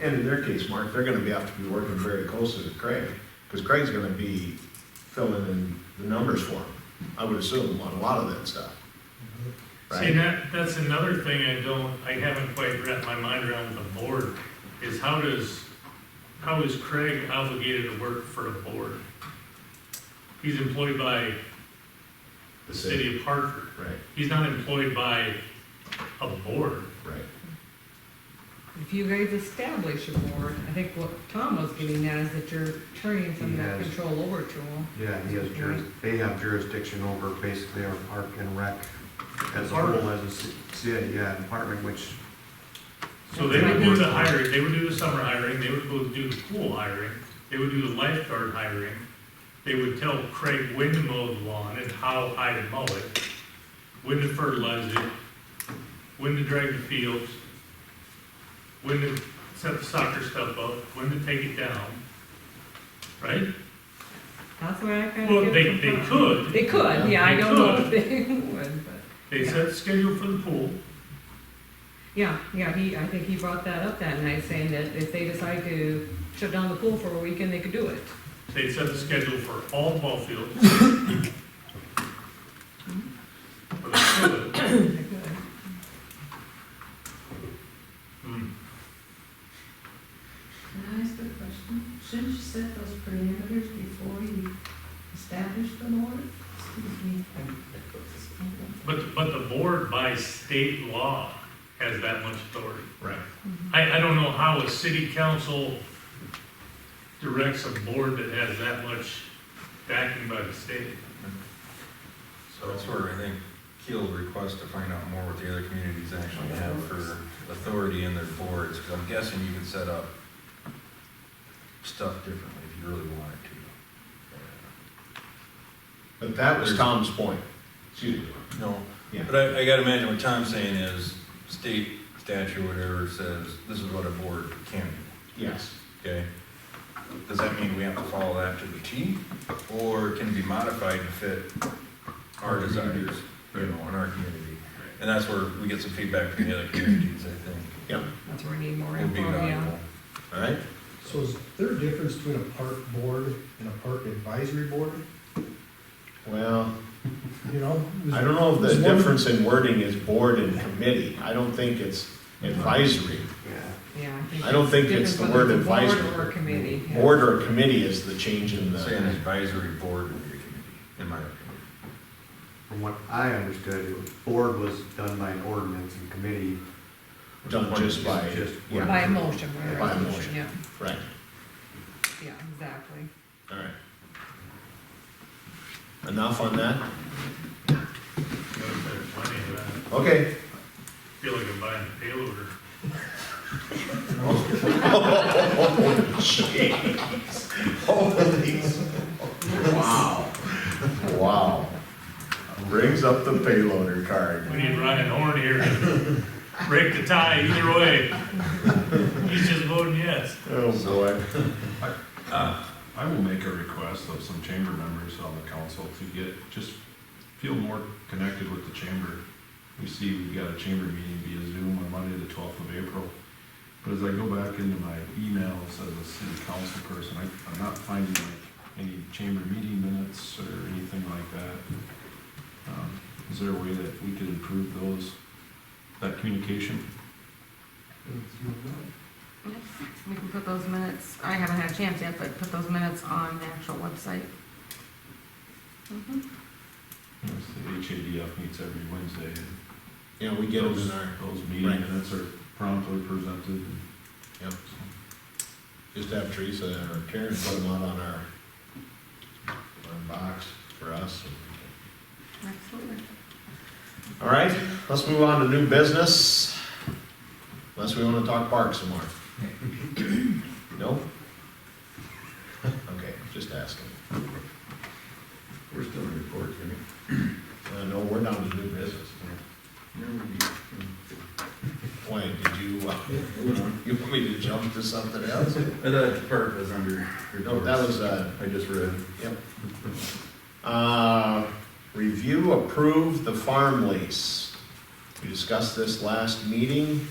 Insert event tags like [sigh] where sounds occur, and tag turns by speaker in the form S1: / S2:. S1: And in their case, Mark, they're gonna be, have to be working very closely with Craig, because Craig's gonna be filling in the numbers for him, I would assume, on a lot of that stuff.
S2: See,
S1: Right?
S2: that, that's another thing I don't, I haven't quite wrapped my mind around with the board, is how does, how is Craig obligated to work for the board? He's employed by the city of Hartford.
S1: Right,
S2: He's not employed by a board.
S1: right.
S3: If you guys establish a board, I think what Tom was getting at is that you're turning some of that
S4: Yes.
S3: control over to them.
S4: Yeah, he has juris, they have jurisdiction over basically our park and rec as a
S2: Department.
S4: whole, as a ci- city, yeah, department, which,
S2: So they would do the hiring, they would do the summer hiring, they would go do the pool hiring, they would do the lifeguard hiring. They would tell Craig when to mow the lawn and how high to mow it, when to fertilize it, when to drag the fields, when to set the soccer stuff up, when to take it down, right?
S3: That's what I kind of.
S2: Well, they, they could,
S3: They could, yeah, I
S2: They
S3: don't know if they [laughs] would, but,
S2: they set the schedule for the pool,
S3: yeah, yeah, he, I think he brought that up that night, saying that if they decide to shut down the pool for a weekend, they could do
S1: [laughs]
S3: it.
S2: they set the schedule for all ball fields. For the pool.
S3: They could.
S2: Hmm.
S5: Can I ask a question? Shouldn't you set those parameters before you establish the board? Excuse me.
S2: But, but the board by state law has that much authority.
S1: Right.
S2: I, I don't know how a city council directs a board that has that much backing by the state.
S6: So that's where I think Keel's request to find out more what the other communities actually have for authority in their boards, because I'm guessing you can set up stuff differently if you really wanted to.
S1: But that was Tom's point, excuse me.
S6: No,
S1: Yeah.
S6: but I, I gotta imagine what Tom's saying is, state statute, whatever, says, this is what a board can do,
S1: Yes.
S6: okay? Does that mean we have to follow that to the T, or can it be modified to fit our desires, you know, in our community? And that's where we get some feedback from the other communities, I think,
S1: Yep,
S3: That's where we need more
S6: would be
S3: info, yeah.
S6: valuable.
S1: all right.
S7: So is there a difference between a park board and a park advisory board,
S1: Well,
S7: you know?
S1: I don't know if
S7: Is
S1: the
S7: one-
S1: difference in wording is board and committee. I don't think it's advisory.
S4: yeah.
S3: Yeah.
S1: I don't think it's the word
S3: different whether it's a
S1: advisory.
S3: Board or committee. yeah.
S1: Board or committee is the change in
S6: Say an
S1: the,
S6: advisory board would be a committee, in my opinion.
S4: From what I understood, it was, board was done by an ordinance and committee.
S1: done just by,
S4: Just-
S1: yeah,
S3: By a motion, by a
S1: By a
S3: resolution, yeah,
S1: right,
S3: yeah, exactly.
S1: all right. Enough on that?
S2: You know, if there's plenty of that.
S1: [laughs] Okay.
S2: I Feel like I'm buying a payloader.
S1: Wow. Wow. Brings up the payloader
S2: We
S1: card.
S2: need Ryan Horn here to [laughs] break the tie either way. He's just voting yes.
S1: Oh, boy.
S8: I will make a request of some chamber members on the council to get, just feel more connected with the chamber. We see we've got a chamber meeting via Zoom on Monday, the twelfth of April. But as I go back into my emails as a city council person, I, I'm not finding like any chamber meeting minutes or anything like that. Um, Is there a way that we could improve those, that communication?
S9: We can put those minutes, I haven't had a chance yet, but put those minutes on the actual website.
S8: You know, The HADF meets every Wednesday and
S1: Yeah, we get them in our,
S8: Those meeting
S1: Right.
S8: minutes are promptly presented.
S1: yep. Just have Teresa or Karen put them out on our, our box for us.
S9: Absolutely.
S1: All right, let's move on to new business. Unless we wanna talk parks some more. No? [laughs] Okay, just asking.
S6: We're still in report, Jimmy.
S1: Uh, no, we're down to new business. Why, did you, uh, [laughs] you want me to jump to something else?
S6: I thought the part was under
S1: No,
S6: reports.
S1: that was, uh,
S6: I just read.
S1: yep. Uh, review, approve the farm lease. We discussed this last meeting.